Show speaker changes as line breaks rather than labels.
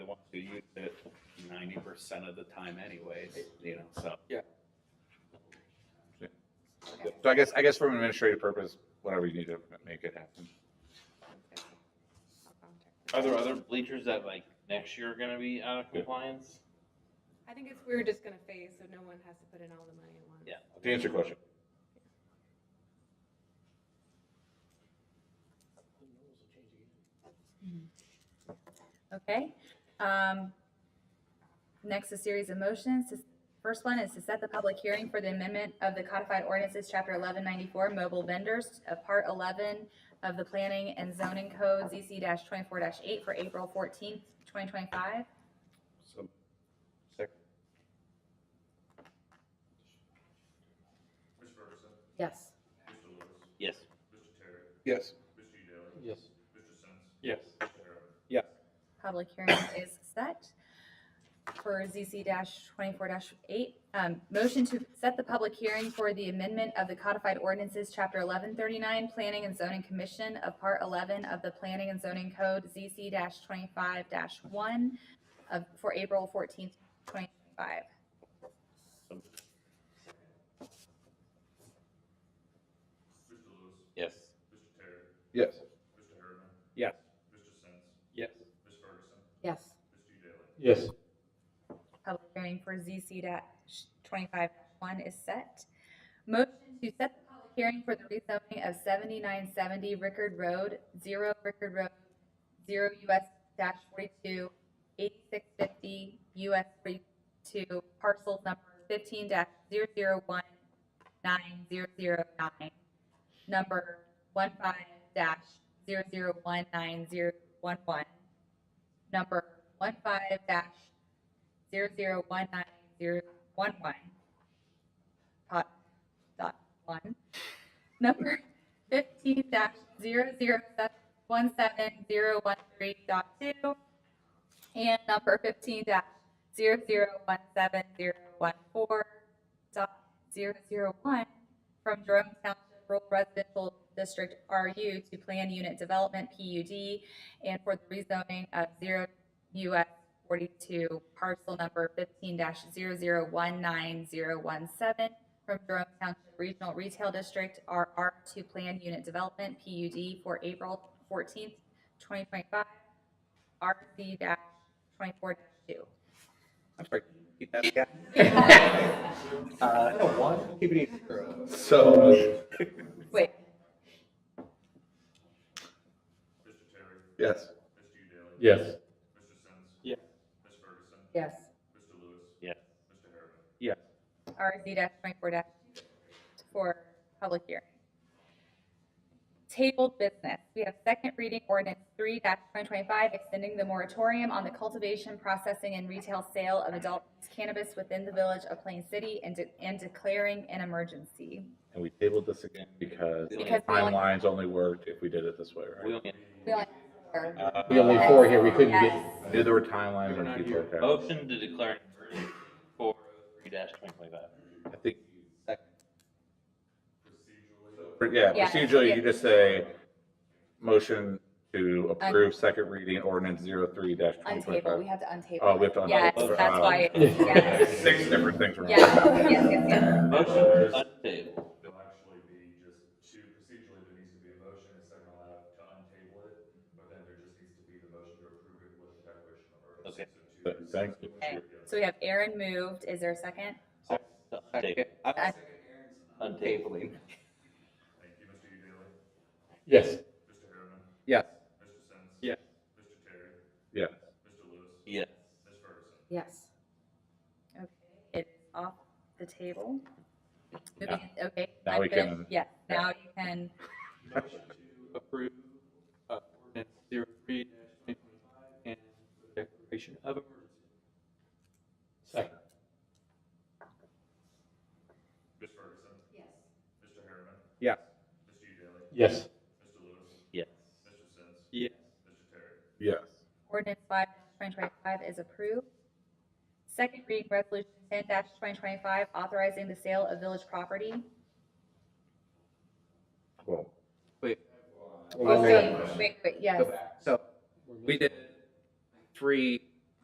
ninety percent of the time anyways, you know, so.
So I guess, I guess from an administrative purpose, whatever you need to make it happen.
Are there other bleachers that like next year are gonna be out of compliance?
I think it's, we're just gonna phase, so no one has to put in all the money at once.
Yeah.
To answer your question,
Okay. Um, Next, a series of motions. This- First one is to set the public hearing for the amendment of the codified ordinances, chapter eleven ninety-four, mobile vendors, uh, part eleven of the planning and zoning code, ZC twenty-four eight for April fourteenth, twenty twenty-five.
so. Second.
Yes.
Yes.
Yes.
Yes.
Yes.
Public hearing is set for ZC twenty-four eight. Um, motion to set the public hearing for the amendment of the codified ordinances, chapter eleven thirty-nine, Planning and Zoning Commission of Part eleven of the Planning and Zoning Code, ZC twenty-five one of, for April fourteenth, twenty twenty-five.
Yes.
Yes.
Yes.
Yes.
Yes.
Public hearing for ZC twenty-five one is set. Motion to set the public hearing for the rezoning of seventy-nine seventy Rickard Road, zero Rickard Road, zero US dash forty-two, eighty-six fifty US forty-two, parcel number fifteen dash zero zero one nine zero zero nine, number one five dash zero zero one nine zero one one, number one five dash zero zero one nine zero one one. Dot, dot one. Number fifteen dash zero zero one seven zero one three dot two. And number fifteen dash zero zero one seven zero one four dot zero zero one from Jerome Township Rural Residential District RU to Plan Unit Development PUD and for the rezoning of zero US forty-two, parcel number fifteen 19017 from Jerome Township Regional Retail District, RR to Plan Unit Development, PUD, for April fourteenth, twenty twenty-five, RC twenty-four two.
I'm sorry. Keep that again.
Uh, no, one, keep it zero.
So.
Wait,
Yes.
Yes.
yes,
Yes.
RZ twenty-four for public hearing. Tabled business, we have second reading ordinance three twenty twenty-five, extending the moratorium on the cultivation, processing, and retail sale of adult cannabis within the village of Plain City and, de- and declaring an emergency.
And we tabled this again because
Because we only-
timelines only worked if we did it this way,
We
right?
only
We only-
Uh,
We only four here, we couldn't get,
Yes. Oh.
I knew there were timelines and people like that.
motion to declare an emergency for three dash twenty twenty-five.
I think. Yeah,
Yeah,
procedurally,
yeah.
you just say, motion to approve second reading ordinance zero three dash twenty
Untable, we
twenty-five.
have to untable.
Oh, we have to
Yes,
untable.
that's
Uh,
why, it's- yes,
Six different things were.
yes, yes, yes, yes.
Motion to untable.
There'll actually be just two, procedurally, there needs to be a motion, it's not allowed to untable it, but then there just needs to be the motion to approve it with a declaration of emergency.
Okay.
So two-
Thank you.
Okay, So we have Aaron moved, is there a second?
To untable.
I-
Untable.
Thank you, Mr. Daly.
yes.
Mr. Harriman.
Yes.
Mr. Sins.
Yeah.
Mr. Terry.
Yeah.
Mr. Lewis.
Yes.
Ms. Ferguson.
Yes. Okay, it's off the table. Moving- Okay.
Now
I'm
we
good.
can-
Yeah, now you can,
Motion to approve, uh, ordinance zero three dash twenty twenty-five and declaration of emergency.
Second.
Ms. Ferguson. Yes. Mr. Harriman.
Yeah.
Mr. Daly.
Yes.
Mr. Lewis.
Yes.
Mr. Sins.
Yes.
Mr. Terry.
Yes.
ordinance five twenty twenty-five is approved. Second reading resolution ten twenty twenty-five, authorizing the sale of village property.
Well,
Oh, wait, wait, wait, yes,
So we did three